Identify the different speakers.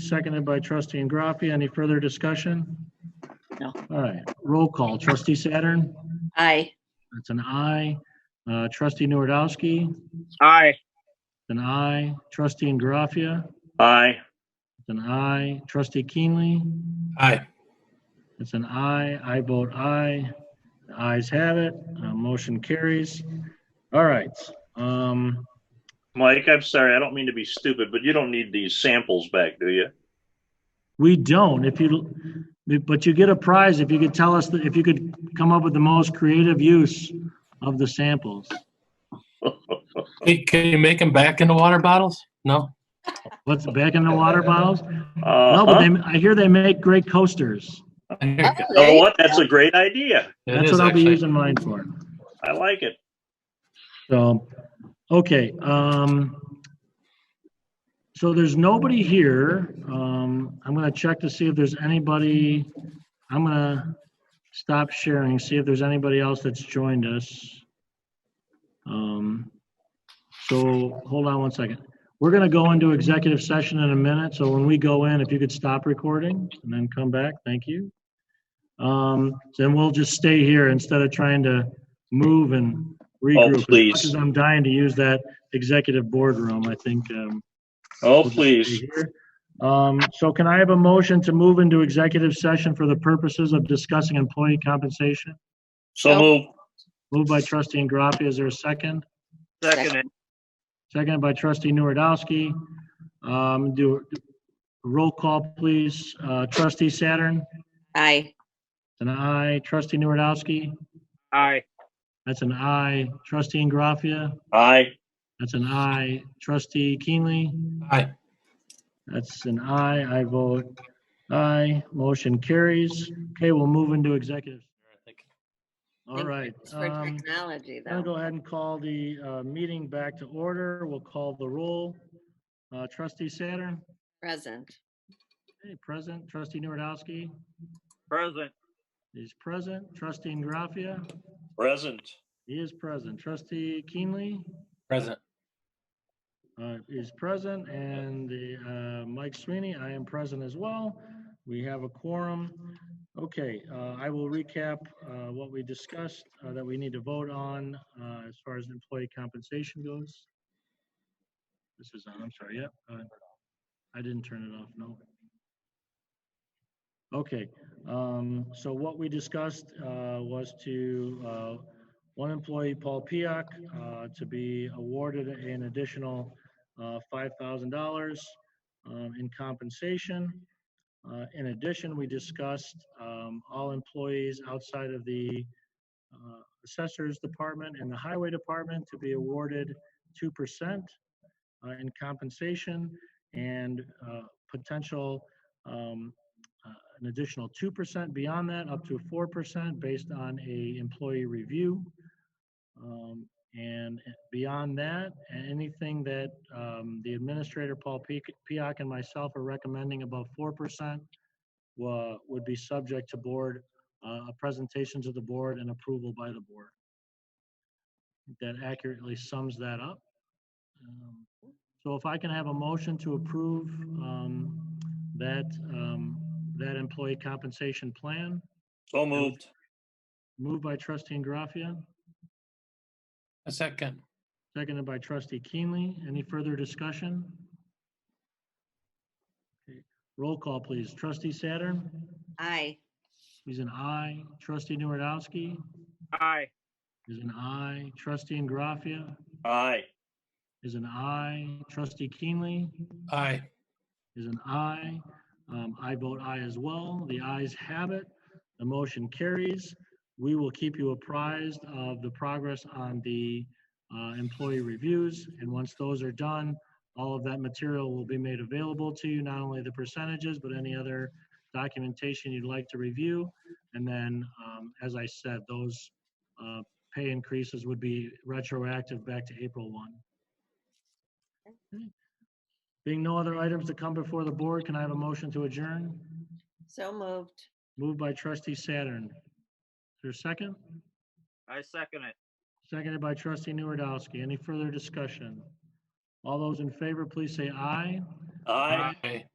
Speaker 1: seconded by trustee Ingraffia. Any further discussion?
Speaker 2: No.
Speaker 1: All right, roll call. Trustee Saturn?
Speaker 2: Aye.
Speaker 1: That's an aye. Uh, Trustee Nuredowski?
Speaker 3: Aye.
Speaker 1: An aye. Trustee Ingraffia?
Speaker 3: Aye.
Speaker 1: It's an aye. Trustee Keenly?
Speaker 4: Aye.
Speaker 1: It's an aye. I vote aye. The ayes have it. Uh, Motion carries. All right. um,
Speaker 3: Mike, I'm sorry. I don't mean to be stupid, but you don't need these samples back, do you?
Speaker 1: We don't, if you, but you get a prize if you could tell us, that if you could come up with the most creative use of the samples.
Speaker 3: Uh-huh.
Speaker 4: Hey, Can you make them back into water bottles? No?
Speaker 1: What's back in the water
Speaker 4: Uh-huh.
Speaker 1: bottles? No, but
Speaker 3: Uh,
Speaker 1: they, I hear they make great coasters.
Speaker 4: There you
Speaker 2: Oh,
Speaker 3: You
Speaker 4: go.
Speaker 3: know
Speaker 2: there you
Speaker 3: what? That's
Speaker 2: go.
Speaker 3: a great idea.
Speaker 4: It
Speaker 1: That's
Speaker 4: is
Speaker 1: what I'll be
Speaker 4: actually.
Speaker 1: using mine for.
Speaker 3: I like it.
Speaker 1: So, okay, um, so there's nobody here. Um, I'm gonna check to see if there's anybody, I'm gonna stop sharing, see if there's anybody else that's joined us. Um, so, hold on one second. We're gonna go into executive session in a minute, so when we go in, if you could stop recording and then come back, thank you. Um, then we'll just stay here instead of trying to move and regroup. As
Speaker 3: please.
Speaker 1: much as I'm dying to use that executive boardroom, I think, um.
Speaker 3: Oh,
Speaker 1: we'll just
Speaker 3: please.
Speaker 1: stay here. Um, so can I have a motion to move into executive session for the purposes of discussing employee compensation?
Speaker 3: So move.
Speaker 1: Moved by trustee Ingraffia, is there a second?
Speaker 2: Second
Speaker 3: it.
Speaker 1: Seconded by trustee Nuredowski. Um, do, roll call, please. Uh, trustee Saturn,
Speaker 2: Aye.
Speaker 1: an aye. Trustee Nuredowski,
Speaker 3: Aye.
Speaker 1: that's an aye. Trustee Ingraffia,
Speaker 3: Aye.
Speaker 1: that's an aye. Trustee Keenly,
Speaker 4: Aye.
Speaker 1: that's an aye. I vote aye. Motion carries. Okay, we'll move into executive. All
Speaker 2: Thank
Speaker 1: right.
Speaker 2: goodness For
Speaker 1: Um,
Speaker 2: technology,
Speaker 1: I'll
Speaker 2: though.
Speaker 1: go ahead and call the, uh, meeting back to order. We'll call the roll. Uh, trustee Saturn?
Speaker 2: Present.
Speaker 1: Okay, present, trustee Nuredowski
Speaker 3: Present.
Speaker 1: is present, trustee Ingraffia,
Speaker 3: Present.
Speaker 1: he is present, trustee Keenly
Speaker 4: Present.
Speaker 1: uh, is present, and the, uh, Mike Sweeney, I am present as well. We have a quorum. Okay, uh, I will recap uh, what we discussed uh, that we need to vote on uh, as far as employee compensation goes. This is, on. I'm sorry, yep. uh, I didn't turn it off, no. Okay, um, so what we discussed uh, was to, uh, one employee, Paul Piak, uh, to be awarded an additional uh, $5,000 um, in compensation. Uh, In addition, we discussed um, all employees outside of the uh, Assessor's Department and the Highway Department to be awarded 2% uh, in compensation and uh, potential, um, uh, an additional 2% beyond that, up to 4% based on a employee review. Um, And beyond that, anything that um, the administrator, Paul Pe- Piak, and myself are recommending above 4% wa- would be subject to board, uh, a presentation to the board and approval by the board. That accurately sums that up. Um, So if I can have a motion to approve um, that, um, that employee compensation plan,
Speaker 3: So
Speaker 1: moved. moved by trustee Graffia.
Speaker 4: A second.
Speaker 1: Seconded by trustee Keenly. Any further discussion? Okay, Roll call, please. Trustee Saturn?
Speaker 2: Aye.
Speaker 1: He's an aye. Trustee Nuredowski
Speaker 3: Aye.
Speaker 1: is an aye. Trustee Ingraffia
Speaker 3: Aye.
Speaker 1: is an aye. Trustee Keenly
Speaker 4: Aye.
Speaker 1: is an aye. Um, I vote aye as well. The ayes have it. The motion carries. We will keep you apprised of the progress on the uh, employee reviews. And once those are done, all of that material will be made available to you, not only the percentages, but any other documentation you'd like to review. And then, um, as I said, those uh, pay increases would be retroactive back to April 1. Being no other items to come before the board, can I have a motion to adjourn?
Speaker 2: So moved.
Speaker 1: Moved by trustee Saturn. Is there a second?
Speaker 3: I second it.
Speaker 1: Seconded by trustee Nuredowski. Any further discussion? All those in favor, please say aye.
Speaker 4: Aye.